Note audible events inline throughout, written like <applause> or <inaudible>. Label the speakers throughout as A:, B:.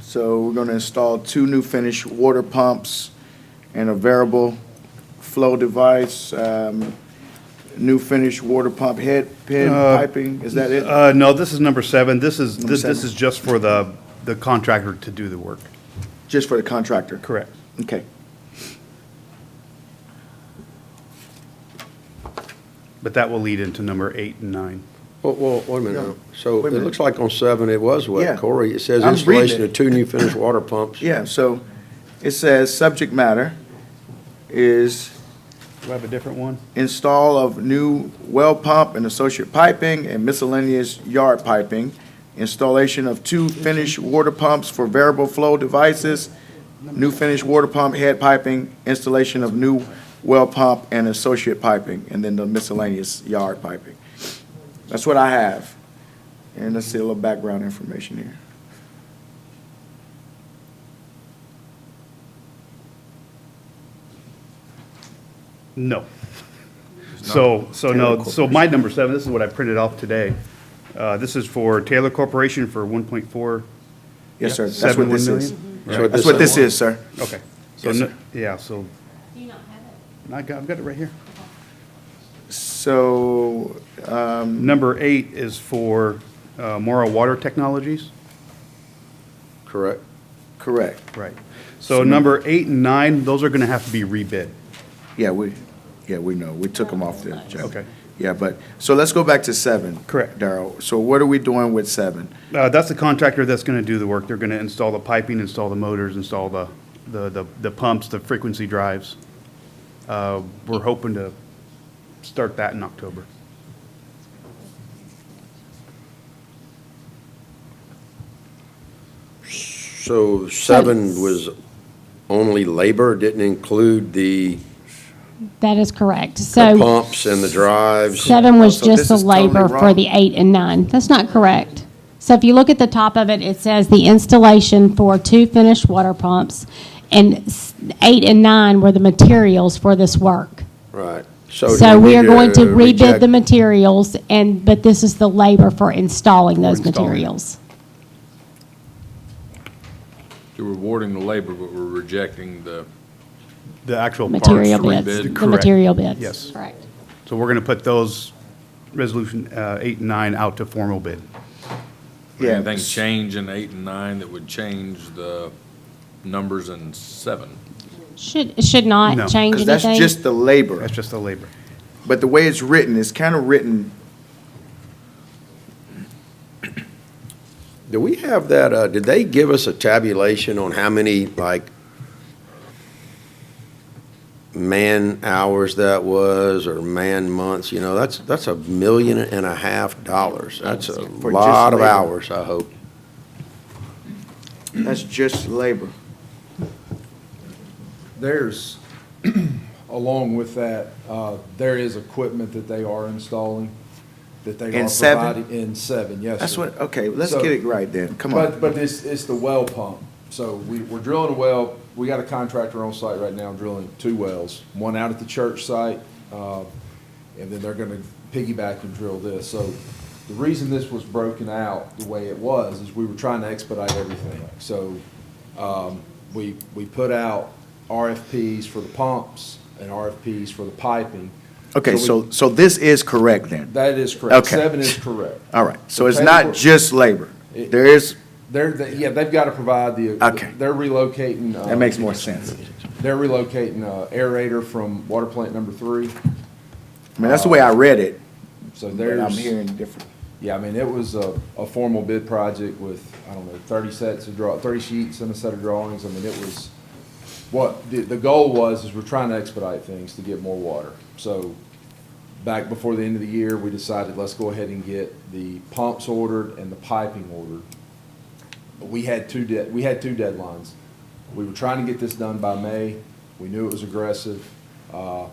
A: So we're gonna install two new finished water pumps and a variable flow device, um, new finished water pump head, pin,
B: Uh,
A: piping, is that it?
B: Uh, no, this is number seven. This is,
A: Number
B: this, this
A: seven.
B: is just for the, the contractor to do the work.
A: Just for the contractor?
B: Correct.
A: Okay.
B: But that will lead into number eight and nine.
C: Well, well, wait a minute.
A: No.
C: now. So
A: Wait a
C: it
A: minute.
C: looks like on seven, it was
A: Yeah.
C: wet. Corey, it says
A: I'm reading
C: installation
A: it.
C: of two new finished water pumps.
A: Yeah, so it says subject matter is
B: Do I have a different one?
A: install of new well pump and associate piping and miscellaneous yard piping, installation of two finished water pumps for variable flow devices, new finished water pump head piping, installation of new well pump and associate piping, and then the miscellaneous yard piping. That's what I have. And let's see a little background information here.
B: No. So, so no,
A: Taylor
B: so my number seven, this is what I printed off today. Uh, this is for Taylor Corporation for one point four
A: Yes, sir. That's what
B: seven one
A: this
B: million.
A: is.
B: Right.
C: So
A: That's what this is, sir.
B: Okay. So,
A: Yes,
B: no-
A: sir.
B: yeah, so
D: Do you not have it?
B: I got, I've got it right here.
A: So, um,
B: Number eight is for, uh, Mora Water Technologies.
C: Correct.
A: correct.
B: Right. So number eight and nine, those are gonna have to be rebid.
A: Yeah, we, yeah, we know, we took them off the agenda.
B: Okay.
A: Yeah, but, so let's go back to seven.
B: Correct.
A: Darrell, so what are we doing with seven?
B: Uh, that's the contractor that's gonna do the work. They're gonna install the piping, install the motors, install the, the, the- the pumps, the frequency drives. Uh, we're hoping to start that in October.
C: So seven was only labor, didn't include the
D: That is correct.
C: the
D: So
C: pumps and the drives.
D: seven was
A: So this
D: just the
A: is totally
D: labor for
A: wrong.
D: the eight and nine. That's not correct. So if you look at the top of it, it says the installation for two finished water pumps, and s- eight and nine were the materials for this work.
C: Right.
D: So
C: do we
D: we are
C: need
D: going to rebid
C: reject-
D: the materials, and, but this is the labor for installing those
B: installing it.
D: materials.
E: You're rewarding the labor, but we're rejecting the,
B: The actual parts.
D: Material
E: rebid.
D: bids, the
B: Correct.
D: material bids.
B: Yes.
D: Correct.
B: So we're gonna put those resolution, uh, eight and nine out to formal bid.
A: Yeah,
E: anything change in eight and nine that would change the numbers in seven.
D: Should, it should
B: No.
D: not change
A: Because
D: anything.
A: that's just the labor,
B: That's just the labor.
A: but the way it's written, it's kind of written,
C: Do we have that, uh, did they give us a tabulation on how many, like, man-hours that was, or man-months, you know, that's, that's a million and a half dollars. That's a
A: For just
C: lot of
A: labor.
C: hours, I hope.
A: that's just labor.
F: There's, <clears throat> along with that, uh, there is equipment that they are installing, that they are
A: In seven?
F: providing. In seven, yes.
A: That's
F: sir.
A: what, okay, let's
F: So-
A: get it right then, come
F: But,
A: on.
F: but it's, it's the well pump. So we, we're drilling a well, we got a contractor on site right now drilling two wells, one out at the church site, uh, and then they're gonna piggyback and drill this. So the reason this was broken out the way it was is we were trying to expedite everything. So, um, we, we put out RFPs for the pumps and RFPs for the piping.
A: Okay,
F: we-
A: so, so this is correct then,
F: That is correct.
A: Okay.
F: Seven is correct.
A: all right, so
F: The
A: it's not
F: paperwork-
A: just labor,
F: It-
A: there is,
F: They're, they- yeah, they've got to provide the.
A: Okay.
F: They're relocating. uh,
A: that makes more sense.
F: They're relocating uh, aerator from water plant number three,
A: I mean, that's the way I read it,
F: so
A: but
F: there's.
A: I'm hearing different.
F: Yeah, I mean, it was a, a formal bid project with, I don't know, thirty sets of draw, thirty sheets and a set of drawings. I mean, it was, what, the, the goal was, is we're trying to expedite things to get more water. So back before the end of the year, we decided, let's go ahead and get the pumps ordered and the piping ordered. We had two de, we had two deadlines. We were trying to get this done by May. We knew it was aggressive. Uh,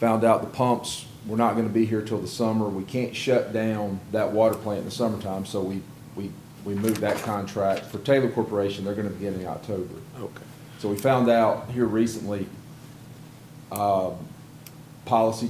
F: Found out the pumps were not gonna be here till the summer. We can't shut down that water plant in the summertime, so we, we, we moved that contract. For Taylor Corporation, they're gonna begin in October.
C: Okay.
F: So we found out here recently, um, policy